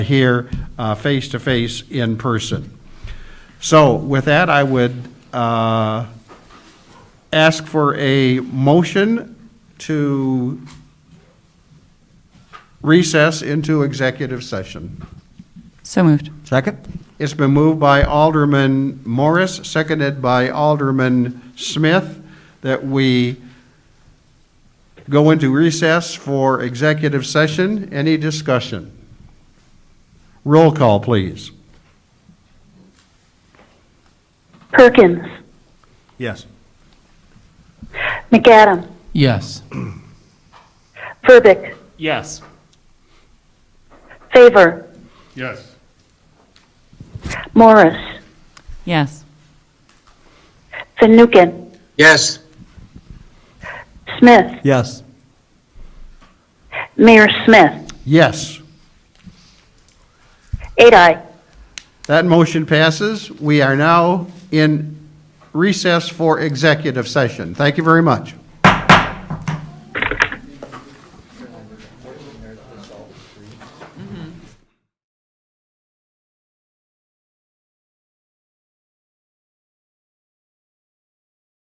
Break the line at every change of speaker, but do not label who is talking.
here uh, face-to-face in person. So with that, I would uh, ask for a motion to recess into executive session.
So moved.
Second. It's been moved by Alderman Morris, seconded by Alderman Smith, that we go into recess for executive session. Any discussion? Roll call, please.
Perkins,
Yes.
McAdam,
Yes.
Verbic,
Yes.
Favor,
Yes.
Morris,
Yes.
Van Nuken,
Yes.
Smith,
Yes.
Mayor Smith,
Yes.
Adi.
That motion passes. We are now in recess for executive session. Thank you very much.